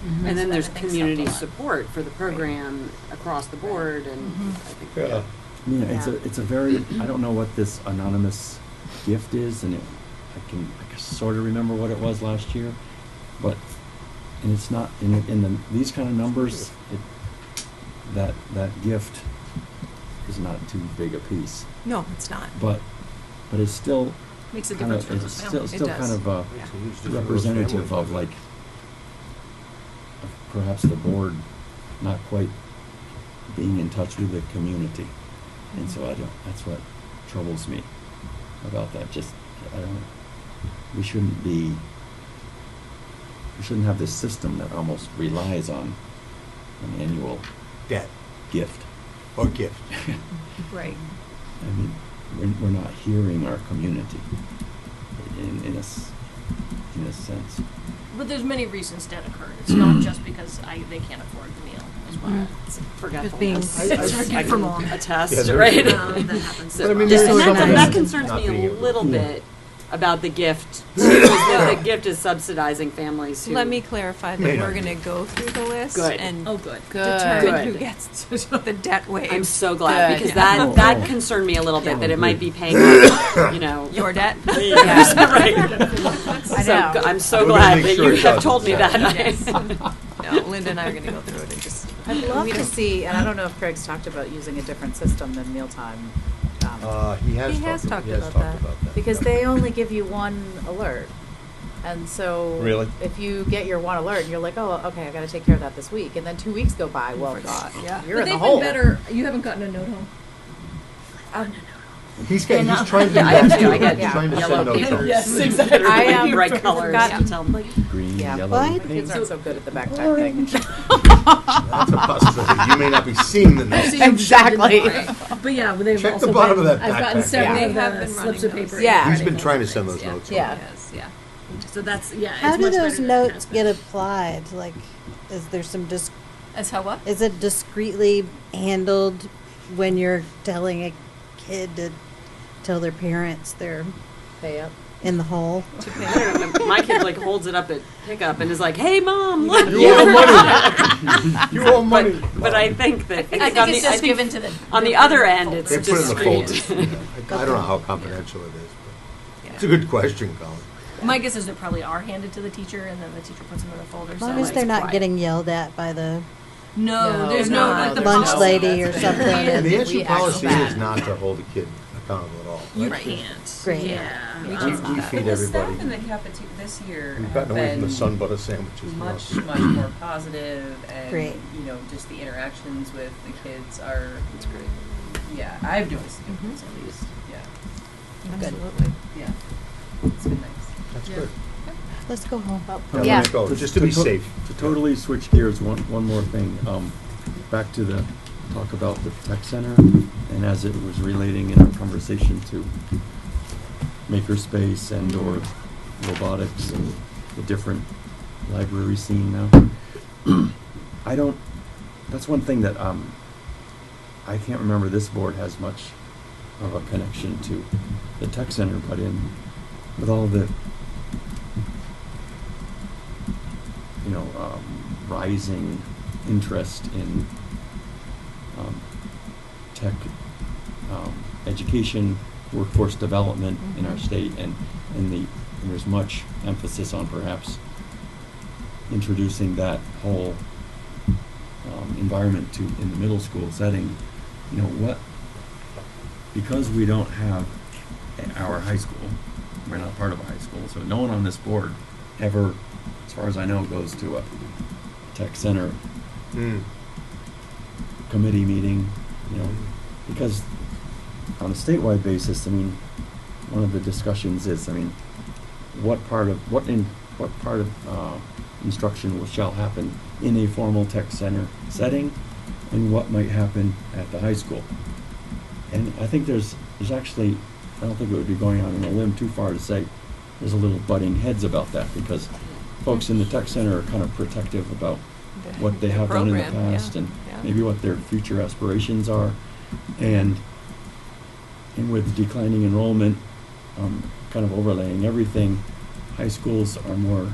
Mm-hmm. And then there's That makes up a community lot. support for the program across the board and I think. Yeah. Yeah, it's a, Yeah. it's a very, I don't know what this anonymous gift is, and it, I can, I can sort of remember what it was last year, but, and it's not, in, in the, these kind of numbers, it, that, that gift is not too big a piece, No, it's not. but, but it's still Makes a kind difference of, for it's those still, families. It still does. kind of, uh, Yeah. representative of like perhaps the board not quite being in touch with the community. And so I don't, that's what troubles me about that, just, I don't, we shouldn't be, we shouldn't have this system that almost relies on an annual Debt gift. or gift. Right. I mean, we're, we're not hearing our community in, in a, s- in a sense. But there's many reasons debt occurred. It's not just because I, they can't afford the meal as well. Mm-hmm. Forgetfulness. being- It's I can forgetful. Yeah, Attest, there- right? Um, that happens So- as But I mean, well. And there's that- something and that about concerns not me being a able to- little Yeah. bit about the gift, because the gift is subsidizing families who. Let me clarify May that not we're be. gonna go through the list Good. and Oh, good. Good. determine who gets the debt waived. I'm so glad, Good. because Yeah. that, that Oh. concerned me a little bit, Yeah. that it might be paying, off, you know. Your debt? Yes, right. I So, know. g- I'm We're so gonna glad make that sure you it have doesn't told me happen. that. No, Linda and I are gonna go through it and just. I'd love we to don't- see, and I don't know if Craig's talked about using a different system than mealtime. um, Uh, he has He has talked, talked he has about talked that. about that. Because yeah. they only give you one alert. And so. Really? If you get your one alert and you're like, oh, okay, I gotta take care of that this week, and then two weeks go by, well, God, Yeah. you're in the hole. You haven't gotten a note home. Um, He's getting, he's trying to do Yeah, I am that too. I too. get He's trying to yellow send notes paper. out. Yes, exactly. I, um, Bright colors. forgot- to tell them. Green, Yeah. yellow. My pink. kids aren't so good at the back type thing. That's a possibility. You may not be seeing the notes. Exactly. But yeah, well, they've Check the also bottom of been, that I've gotten backpack. several Yeah. of They have the been slips running of paper. those. Yeah. He's been trying to send those notes out. Yeah. Yes, yeah. So that's, yeah, How it's do much better those than notes it get has been. applied? Like, is there some dis, As how what? is it discreetly handled when you're telling a kid to tell their parents they're Pay up. in the hole? I don't know, My kid like holds it up at pickup and is like, "Hey, mom, look." You owe money. You owe money. But, but I think that I think on it's the, I just think given to the. on the other end, it's They put it in the discreet. folders. Yeah. I I don't know how confidential it is, but it's a good question, Colin. My guess is they probably are handed to the teacher and then the teacher puts them in a folder. As so long as it's they're not quiet. getting yelled at by the No, No, there's no, no, like the there's lunch policy lady or that's something. there. And the We answer ask policy is that. not to hold a kid accountable at all. You right? can't. Great. Yeah. We Um, can't We feed everybody. The cafeteria this year We've have gotten away from the been sun butter sandwiches. now. much, much more positive and, Great. you know, just the interactions with the kids are. It's great. Yeah, I've noticed a Mm-hmm. difference at least, yeah, Absolutely. yeah. It's been nice. That's good. Let's go home. Oh. Now, Yeah. let it go, just to be to- safe. To totally switch gears, one, one more thing, um, back to the, talk about the tech center, and as it was relating in our conversation to makerspace and/or robotics and the different library scene now. I don't, that's one thing that, um, I can't remember this board has much of a connection to the tech center, but in, with all the, you know, um, rising interest in, um, tech, um, education, workforce development in our Mhm. state, and, and the, and there's much emphasis on perhaps introducing that whole um, environment to in the middle school setting, you know what? Because we don't have a- our high school, we're not part of a high school, so no one on this board ever, as far as I know, goes to a tech center Mm. committee meeting, you know, because on a statewide basis, I mean, one of the discussions is, I mean, what part of, what in, what part of, uh, instruction will, shall happen in a formal tech center setting, and what might happen at the high school. And I think there's, there's actually, I don't think it would be going out on a limb too far to say, there's a little butting heads about that, because folks in the tech center are kind of protective about The- what they the have done in the program, yeah, past and yeah. maybe what their future aspirations are. And, and with declining enrollment, um, kind of overlaying everything, high schools are more